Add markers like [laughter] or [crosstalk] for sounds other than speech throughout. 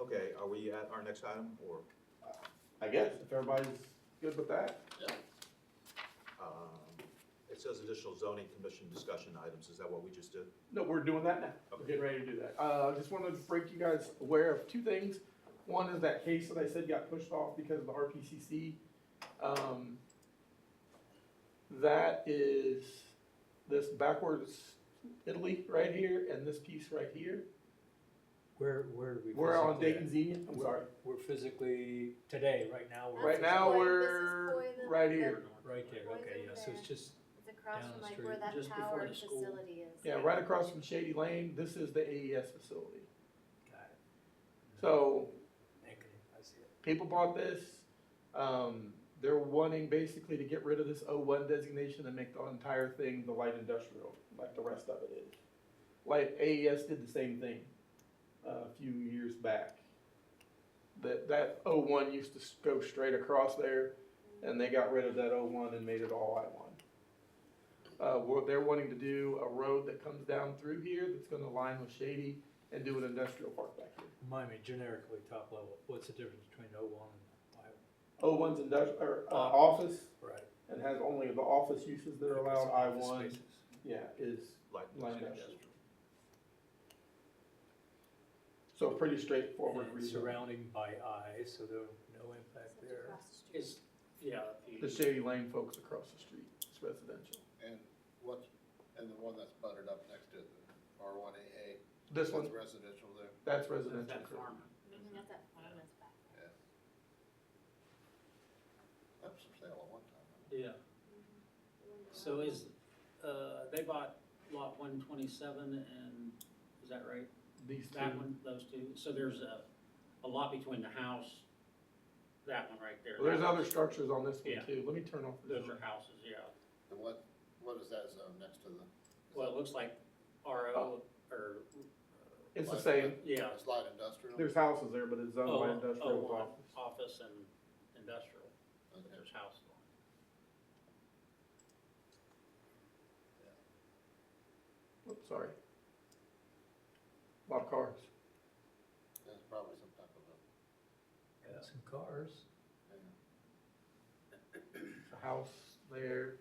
Okay, are we at our next item, or, I guess, if everybody's good with that. um, it says additional zoning commission discussion items, is that what we just did? No, we're doing that now. We're getting ready to do that. Uh, just wanted to break you guys aware of two things. One is that case that I said got pushed off because of the RPCC. Um, that is this backwards Italy right here and this piece right here. Where, where do we? We're on physically Dayton's at? Union, I'm sorry. We're physically, today, right now, we're. Right now, Boy, this is we're Boy, the- right the- here. Right there, Boys okay, over yeah, so there. it's just, It's across Down from the like street, where that just before power the school. facility is. Yeah, right across from Shady Lane, this is the AES facility. got it. So Okay, I see it. people bought this. Um, they're wanting basically to get rid of this O1 designation and make the entire thing the light industrial, like the rest of it is. Like AES did the same thing uh, a few years back. That that O1 used to s- go straight across there, and they got rid of that O1 and made it all I1. Uh, what they're wanting to do a road that comes down through here that's going to line with Shady and do an industrial park back here. Remind me generically, top level, what's the difference between O one and O1's industrial or uh, office. Y? Right. and has only the office uses that are allowed, I Office one, spaces. yeah, is, Like, Light industrial. so pretty straightforward And reason. Surrounding by I, so there no impact there. Is, yeah, The Shady Lane folks across the street, it's residential. And what's, and the one that's buttered up next to it, R one A This one, Residential there. that's the, residential. that farm. Mhm, That's that farm that's back. That was for sale at one time. Yeah, so is, uh, they bought lot one twenty-seven and, is that right? These That two, one, those two, so there's a, a lot between the house, that one right there. Well, there's other structures on this Yeah. one too, let me turn off. the Those are houses, yeah, And what, what is that zone next to the? well, it looks like Oh. RO, or, It's the same, yeah, It's light industrial? there's houses there, but it's oh, owned by oh, industrial one, office. office and industrial, but Okay. there's houses on it. oh. Oops, sorry. Lot of cars, That's probably some type of a, Got some cars. yeah. a house there,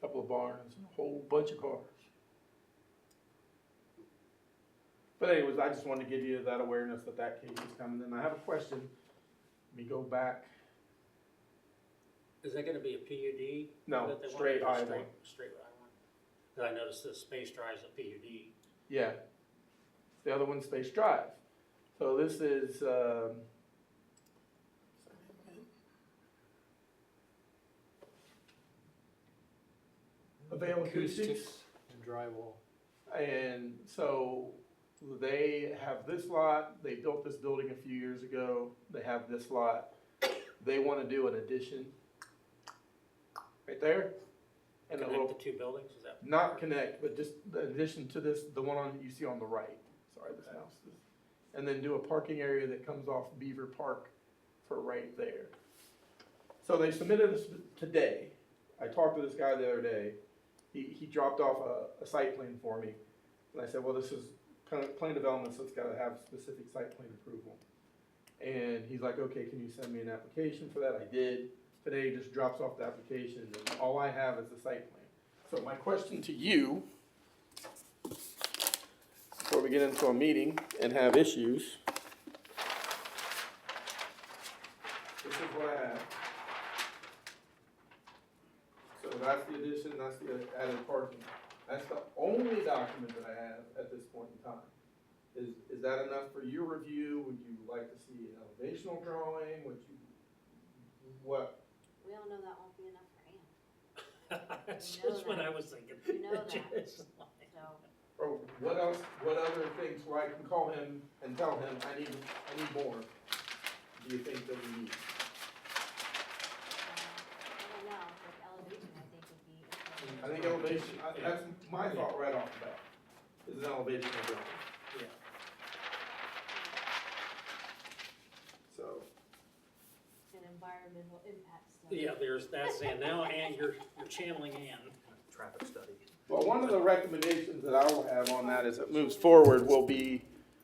couple of barns, and a whole bunch of cars. But anyways, I just wanted to give you that awareness that that case is coming, and I have a question. Let me go back, Is that gonna be a PUD? no, that they want? straight I one, Straight straight I one. Cause I noticed the space drive's a PUD. yeah. The other one's Space Drive. So this is, um, Avail Acoustics. And drywall. And so they have this lot, they built this building a few years ago, they have this lot. They wanna do an addition right there. And a Connect little, the two buildings, is that? not connect, but just the addition to this, the one on, you see on the right, sorry, this house. is- And then do a parking area that comes off Beaver Park for right there. So they submitted this today. I talked to this guy the other day. He, he dropped off a, a site plan for me. And I said, well, this is kind of plan development, so it's gotta have specific site plan approval. And he's like, okay, can you send me an application for that? I did. Today he just drops off the application and all I have is the site plan. So my question to you, before we get into a meeting and have issues. This is what I have. So that's the addition, that's the added parking. That's the only document that I have at this point in time. Is, is that enough for your review? Would you like to see an elevational drawing? Would you, what? We all know that won't be enough for Ann, [laughs] That's You know just what that. I was thinking. You [laughs] know that. Just like- so. um, Or what else, what other things where I can call him and tell him, I need, I need more? Do you think that we need? uh, I don't know, like elevation, I think would I be. think elevation, I- that's my thought right off the bat, is an elevation of building. Yeah. So, An environmental impact study. Yeah, there's, that's, and now Ann, you're, you're channeling Ann. Traffic study. well, one of the recommendations that I will have on that as it moves forward will be